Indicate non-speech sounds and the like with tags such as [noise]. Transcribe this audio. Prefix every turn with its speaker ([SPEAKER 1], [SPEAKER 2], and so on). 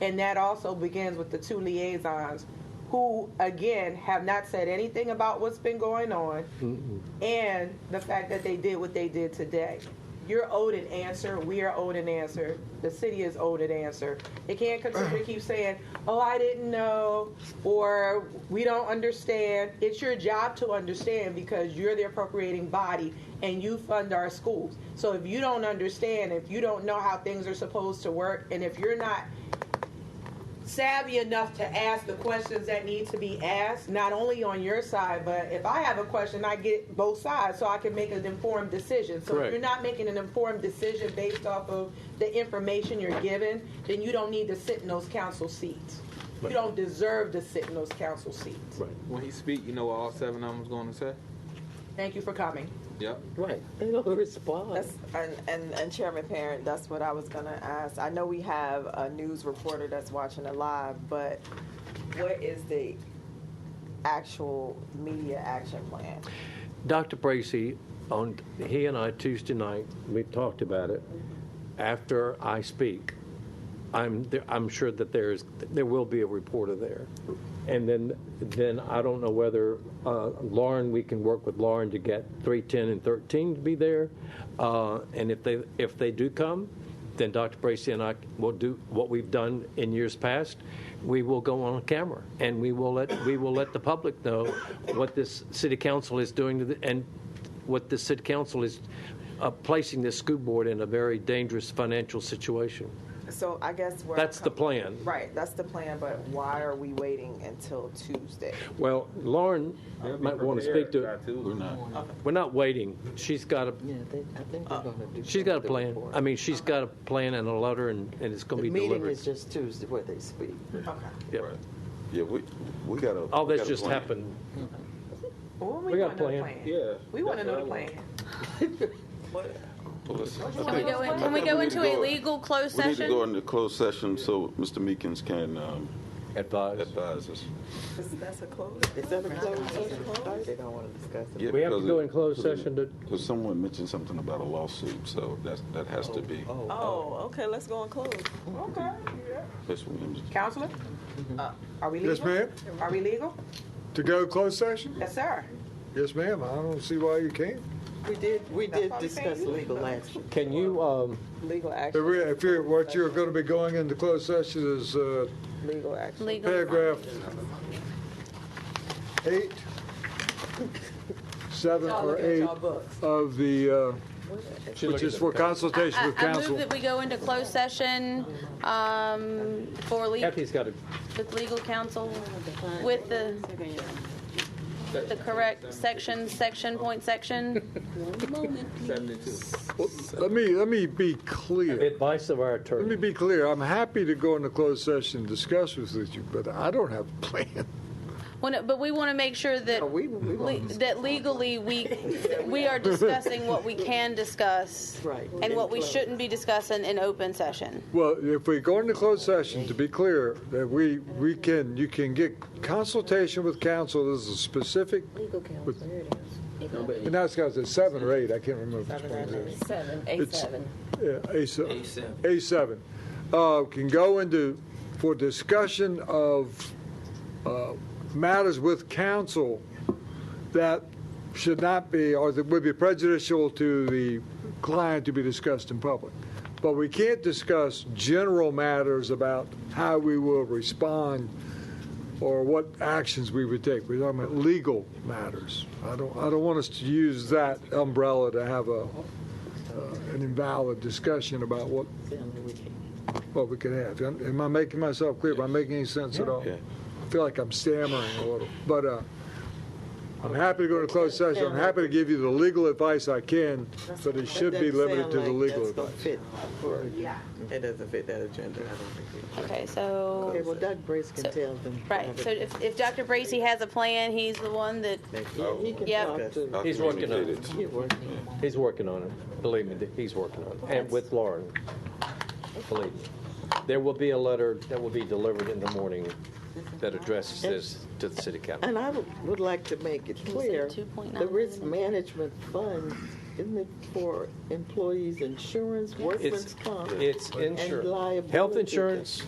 [SPEAKER 1] And that also begins with the two liaisons who, again, have not said anything about what's been going on and the fact that they did what they did today. You're owed an answer. We are owed an answer. The city is owed an answer. They can't continue to keep saying, oh, I didn't know, or we don't understand. It's your job to understand because you're the appropriating body and you fund our schools. So if you don't understand, if you don't know how things are supposed to work, and if you're not savvy enough to ask the questions that need to be asked, not only on your side, but if I have a question, I get both sides so I can make an informed decision. So
[SPEAKER 2] Correct.
[SPEAKER 1] if you're not making an informed decision based off of the information you're given, then you don't need to sit in those council seats.
[SPEAKER 2] Right.
[SPEAKER 1] You don't deserve to sit in those council seats.
[SPEAKER 2] Right.
[SPEAKER 3] When he speak, you know what all seven of them's going to say?
[SPEAKER 1] Thank you for coming.
[SPEAKER 3] Yep.
[SPEAKER 4] Right. They don't respond.
[SPEAKER 5] That's, and, and, and Chairman Parent, that's what I was going to ask. I know we have a news reporter that's watching it live, but what is the actual media action plan?
[SPEAKER 4] Dr. Bracy, on, he and I Tuesday night, we talked about it. After I speak, I'm, there, I'm sure that there's, there will be a reporter there. And then, then I don't know whether uh, Lauren, we can work with Lauren to get 310 and 13 to be there. Uh, and if they, if they do come, then Dr. Bracy and I will do what we've done in years past. We will go on camera and we will let, we will let the public know what this city council is doing to the, and what the city council is uh, placing this school board in a very dangerous financial situation.
[SPEAKER 5] So I guess we're.
[SPEAKER 4] That's the plan.
[SPEAKER 5] Right, that's the plan, but why are we waiting until Tuesday?
[SPEAKER 4] Well, Lauren might want to speak to it.
[SPEAKER 3] We're not.
[SPEAKER 4] We're not waiting. She's got a,
[SPEAKER 6] Yeah, they, I think they're gonna do.
[SPEAKER 4] she's got a
[SPEAKER 6] the
[SPEAKER 4] plan.
[SPEAKER 6] report.
[SPEAKER 4] I mean, she's got a plan and a letter, and, and it's
[SPEAKER 6] The
[SPEAKER 4] going to be
[SPEAKER 6] meeting
[SPEAKER 4] delivered.
[SPEAKER 6] is just Tuesday where they speak.
[SPEAKER 4] Yeah.
[SPEAKER 7] Yeah, we, we got a.
[SPEAKER 4] All
[SPEAKER 7] we
[SPEAKER 4] this
[SPEAKER 7] got a
[SPEAKER 4] just
[SPEAKER 7] plan.
[SPEAKER 4] happened.
[SPEAKER 1] Well,
[SPEAKER 4] We
[SPEAKER 1] we
[SPEAKER 4] got
[SPEAKER 1] want another plan.
[SPEAKER 4] a plan.
[SPEAKER 3] Yeah.
[SPEAKER 1] We want
[SPEAKER 3] That's what I
[SPEAKER 1] another plan.
[SPEAKER 5] [laughs]
[SPEAKER 7] Well, let's- I
[SPEAKER 8] Can we
[SPEAKER 7] think-
[SPEAKER 8] go,
[SPEAKER 7] I
[SPEAKER 8] in, can
[SPEAKER 7] think
[SPEAKER 8] we go into
[SPEAKER 7] need to
[SPEAKER 8] a legal closed
[SPEAKER 7] We need to go
[SPEAKER 8] session?
[SPEAKER 7] into closed session so Mr. Meekins can um,
[SPEAKER 4] Advised.
[SPEAKER 7] advise us.
[SPEAKER 5] That's a close.
[SPEAKER 6] Is that a closed session? They don't wanna discuss it.
[SPEAKER 7] Yeah,
[SPEAKER 4] We have to
[SPEAKER 7] because
[SPEAKER 4] go
[SPEAKER 7] it-
[SPEAKER 4] in closed session to,
[SPEAKER 7] Because someone mentioned something about a lawsuit, so that's, that has to be,
[SPEAKER 5] Oh, okay, let's go and close.
[SPEAKER 1] Okay.
[SPEAKER 7] Ms. Williams.
[SPEAKER 1] Counselor? Uh, Are we legal?
[SPEAKER 9] Yes, ma'am.
[SPEAKER 1] Are we legal?
[SPEAKER 9] To go closed session?
[SPEAKER 1] Yes, sir.
[SPEAKER 9] Yes, ma'am. I don't see why you can't.
[SPEAKER 6] We did, we did
[SPEAKER 1] why we saying
[SPEAKER 6] discuss
[SPEAKER 1] you-
[SPEAKER 6] legal action,
[SPEAKER 4] can you, um,
[SPEAKER 6] legal
[SPEAKER 9] If
[SPEAKER 6] action,
[SPEAKER 9] we- If you're, what you're going to be going into closed session is uh,
[SPEAKER 6] legal action.
[SPEAKER 8] Legal.
[SPEAKER 9] paragraph eight, seven
[SPEAKER 1] Y'all
[SPEAKER 9] or
[SPEAKER 1] look at
[SPEAKER 9] eight
[SPEAKER 1] y'all books.
[SPEAKER 9] of the, uh, which is for consultation
[SPEAKER 8] I,
[SPEAKER 9] with
[SPEAKER 8] I move
[SPEAKER 9] counsel.
[SPEAKER 8] that we go into closed session, um, for le-
[SPEAKER 4] Kathy's got a,
[SPEAKER 8] with legal counsel, with the, the correct section, section, point section.
[SPEAKER 6] [laughs]
[SPEAKER 3] Seventy-two.
[SPEAKER 9] Let me, let me be clear.
[SPEAKER 4] the advice of our
[SPEAKER 9] Let me
[SPEAKER 4] attorney.
[SPEAKER 9] be clear. I'm happy to go into closed session and discuss this with you, but I don't have a plan.
[SPEAKER 8] When, it- but we want to make sure that,
[SPEAKER 6] No, we- we
[SPEAKER 8] le- that legally we,
[SPEAKER 6] [laughs]
[SPEAKER 8] we are discussing what we can discuss.
[SPEAKER 6] Right.
[SPEAKER 8] And what we
[SPEAKER 6] In closed.
[SPEAKER 8] shouldn't be discussing in open session.
[SPEAKER 9] Well, if we go into closed session, to be clear, that we, we can, you can get consultation with counsel. This is specific,
[SPEAKER 10] Legal counsel, there it is.
[SPEAKER 9] and that's got to seven or eight. I can't remember. which one it is.
[SPEAKER 10] Seven,
[SPEAKER 9] It's-
[SPEAKER 10] seven.
[SPEAKER 9] Yeah, A7. A7. Uh, Can go into, for discussion of uh, matters with counsel that should not be, or that would be prejudicial to the client to be discussed in public. But we can't discuss general matters about how we will respond or what actions we would take. We're talking about legal matters. I don't, I don't want us to use that umbrella to have a, uh, an invalid discussion about what, what we could have. Am am I making myself clear? Am I making any sense at all?
[SPEAKER 7] Yeah.
[SPEAKER 9] I feel like I'm stammering a little, but uh, I'm happy to go to closed session. I'm happy to give you the legal advice I can, but it should be
[SPEAKER 6] That doesn't
[SPEAKER 9] limited
[SPEAKER 6] sound
[SPEAKER 9] to the
[SPEAKER 6] like
[SPEAKER 9] legal
[SPEAKER 6] that's gonna
[SPEAKER 9] advice.
[SPEAKER 6] fit for- It doesn't fit that agenda, I don't think.
[SPEAKER 8] Okay, so.
[SPEAKER 6] Okay, well, Doug Brace can
[SPEAKER 8] So-
[SPEAKER 6] tell them.
[SPEAKER 8] Right, so if, if Dr. Bracy has a plan, he's the one that,
[SPEAKER 6] Yeah, he can
[SPEAKER 8] Yep.
[SPEAKER 6] talk to.
[SPEAKER 7] I
[SPEAKER 4] He's working on it.
[SPEAKER 7] communicated.
[SPEAKER 6] He working.
[SPEAKER 4] He's working on it. Believe me, he's working on it. And with Lauren. Believe me. There will be a letter that will be delivered in the morning that addresses this to the city council.
[SPEAKER 6] And I would, would like to make it
[SPEAKER 8] we say
[SPEAKER 6] clear,
[SPEAKER 8] 2.9
[SPEAKER 6] the risk management fund, isn't it for employees' insurance, workman's
[SPEAKER 4] It's,
[SPEAKER 6] comp?
[SPEAKER 4] it's
[SPEAKER 6] and
[SPEAKER 4] insurance,
[SPEAKER 6] liability.
[SPEAKER 4] health insurance,